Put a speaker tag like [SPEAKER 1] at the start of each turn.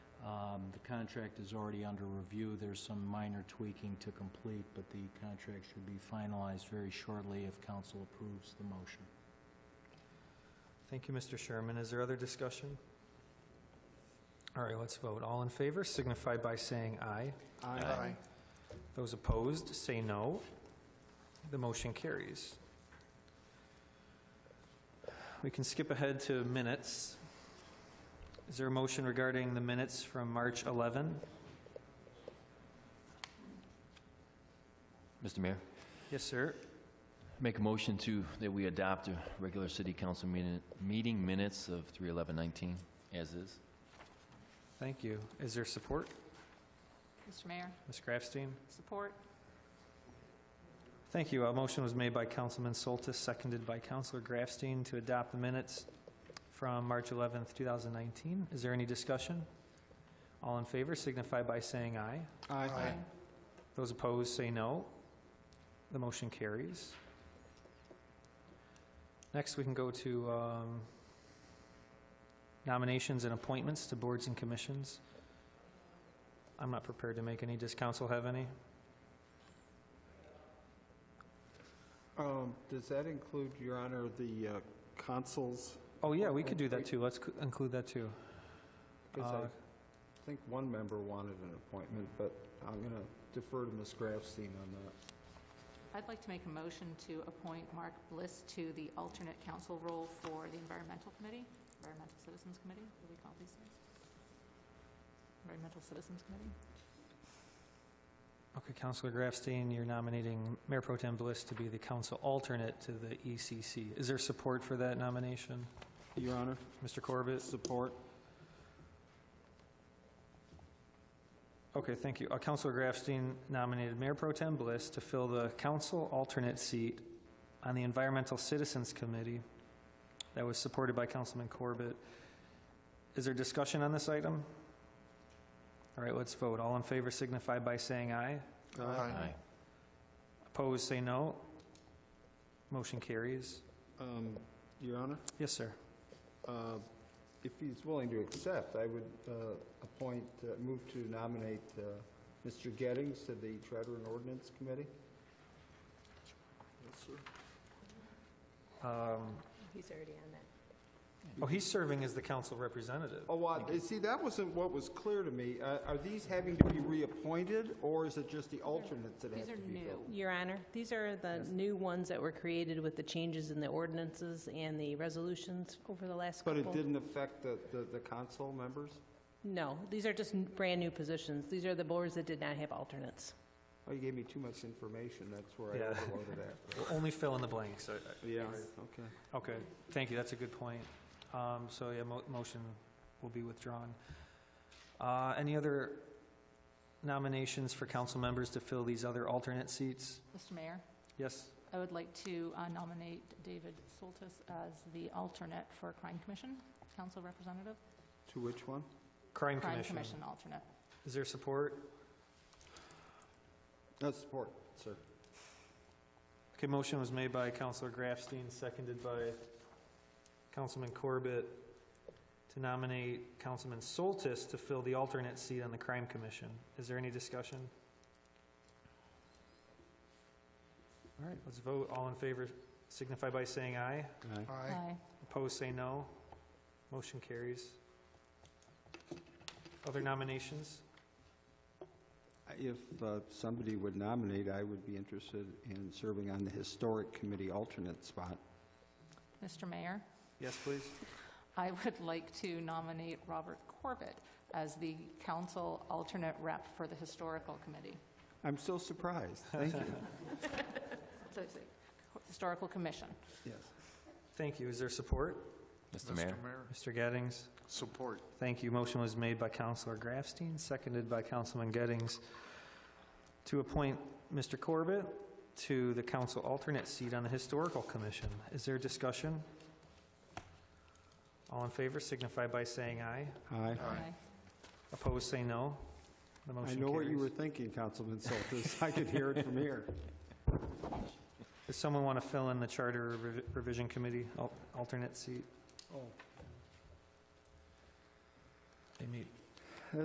[SPEAKER 1] Um, The contract is already under review. There's some minor tweaking to complete, but the contract should be finalized very shortly if council approves the motion.
[SPEAKER 2] Thank you, Mr. Sherman. Is there other discussion? All right, let's vote. All in favor signify by saying aye.
[SPEAKER 3] Aye.
[SPEAKER 2] Those opposed, say no. The motion carries. We can skip ahead to minutes. Is there a motion regarding the minutes from March 11?
[SPEAKER 3] Mr. Mayor,
[SPEAKER 2] Yes, sir.
[SPEAKER 3] make a motion to, that we adopt a regular city council meeting, meeting minutes of 3/11/19 as is.
[SPEAKER 2] Thank you. Is there support?
[SPEAKER 4] Mr. Mayor,
[SPEAKER 2] Ms. Grafstein?
[SPEAKER 4] support.
[SPEAKER 2] Thank you. A motion was made by Councilman Soltis, seconded by Councilor Grafstein to adopt the minutes from March 11th, 2019. Is there any discussion? All in favor signify by saying aye.
[SPEAKER 4] Aye.
[SPEAKER 2] Those opposed say no. The motion carries. Next, we can go to um, nominations and appointments to boards and commissions. I'm not prepared to make any. Does council have any?
[SPEAKER 5] Um, Does that include, Your Honor, the uh, consuls?
[SPEAKER 2] Oh, yeah, we could do that, too. Let's c- include that, too.
[SPEAKER 5] Because
[SPEAKER 2] Uh,
[SPEAKER 5] I think one member wanted an appointment, but I'm going to defer to Ms. Grafstein on that.
[SPEAKER 4] I'd like to make a motion to appoint Mark Bliss to the alternate council role for the Environmental Committee, Environmental Citizens Committee, what do we call these things? Environmental Citizens Committee?
[SPEAKER 2] Okay, Councilor Grafstein, you're nominating Mayor Pro Tem Bliss to be the council alternate to the ECC. Is there support for that nomination?
[SPEAKER 5] Your Honor?
[SPEAKER 2] Mr. Corbett?
[SPEAKER 5] Support.
[SPEAKER 2] Okay, thank you. Uh, Councilor Grafstein nominated Mayor Pro Tem Bliss to fill the council alternate seat on the Environmental Citizens Committee that was supported by Councilman Corbett. Is there discussion on this item? All right, let's vote. All in favor signify by saying aye.
[SPEAKER 3] Aye.
[SPEAKER 2] Opposed, say no. Motion carries.
[SPEAKER 5] Um, Your Honor,
[SPEAKER 2] Yes, sir.
[SPEAKER 5] uh, if he's willing to accept, I would uh, appoint, uh, move to nominate uh, Mr. Gettings to the Charter and Ordinance Committee. Yes, sir.
[SPEAKER 2] Um,
[SPEAKER 4] Oh, He's already on that.
[SPEAKER 2] Oh, he's serving as the council representative.
[SPEAKER 5] Oh, uh, see, that wasn't what was clear to me. Uh, Are these having to be reappointed, or is it just the alternates that have
[SPEAKER 4] These
[SPEAKER 5] to
[SPEAKER 4] are
[SPEAKER 5] be
[SPEAKER 4] new.
[SPEAKER 5] filled?
[SPEAKER 6] Your Honor, these are the new ones that were created with the changes in the ordinances and the resolutions over the last
[SPEAKER 5] But
[SPEAKER 6] couple.
[SPEAKER 5] it didn't affect the, the- the council members?
[SPEAKER 6] No, these are just n- brand-new positions. These are the boards that did not have alternates.
[SPEAKER 5] Oh, you gave me too much information, that's where
[SPEAKER 2] Yeah.
[SPEAKER 5] I overloaded at.
[SPEAKER 2] We'll Only fill in the blanks. I- I-
[SPEAKER 5] Yeah, okay.
[SPEAKER 2] Okay, thank you, that's a good point. Um, So, yeah, mo- motion will be withdrawn. Uh, Any other nominations for council members to fill these other alternate seats?
[SPEAKER 4] Mr. Mayor,
[SPEAKER 2] Yes?
[SPEAKER 4] I would like to uh, nominate David Soltis as the alternate for Crime Commission, council representative.
[SPEAKER 5] To which one?
[SPEAKER 2] Crime
[SPEAKER 4] Crime
[SPEAKER 2] Commission.
[SPEAKER 4] Commission alternate.
[SPEAKER 2] Is there support?
[SPEAKER 5] No, support, sir.
[SPEAKER 2] Okay, motion was made by Councilor Grafstein, seconded by Councilman Corbett to nominate Councilman Soltis to fill the alternate seat on the Crime Commission. Is there any discussion? All right, let's vote. All in favor signify by saying aye.
[SPEAKER 4] Aye.
[SPEAKER 2] Opposed, say no. Motion carries. Other nominations?
[SPEAKER 5] If uh, somebody would nominate, I would be interested in serving on the Historic Committee alternate spot.
[SPEAKER 4] Mr. Mayor?
[SPEAKER 2] Yes, please.
[SPEAKER 4] I would like to nominate Robert Corbett as the council alternate rep for the Historical Committee,
[SPEAKER 5] I'm so surprised, thank you.
[SPEAKER 4] So it's the Historical Commission.
[SPEAKER 5] Yes.
[SPEAKER 2] Thank you. Is there support?
[SPEAKER 3] Mr. Mayor?
[SPEAKER 2] Mr. Gettings?
[SPEAKER 7] Support.
[SPEAKER 2] Thank you. Motion was made by Councilor Grafstein, seconded by Councilman Gettings, to appoint Mr. Corbett to the council alternate seat on the Historical Commission. Is there discussion? All in favor signify by saying aye.
[SPEAKER 5] Aye.
[SPEAKER 7] Aye.
[SPEAKER 2] Opposed, say no. The
[SPEAKER 5] I
[SPEAKER 2] motion
[SPEAKER 5] know what you were
[SPEAKER 2] carries.
[SPEAKER 5] thinking, Councilman Soltis. I could hear it from here.
[SPEAKER 2] Does someone want to fill in the Charter Revi- Revision Committee al- alternate seat?
[SPEAKER 5] Oh,
[SPEAKER 2] They meet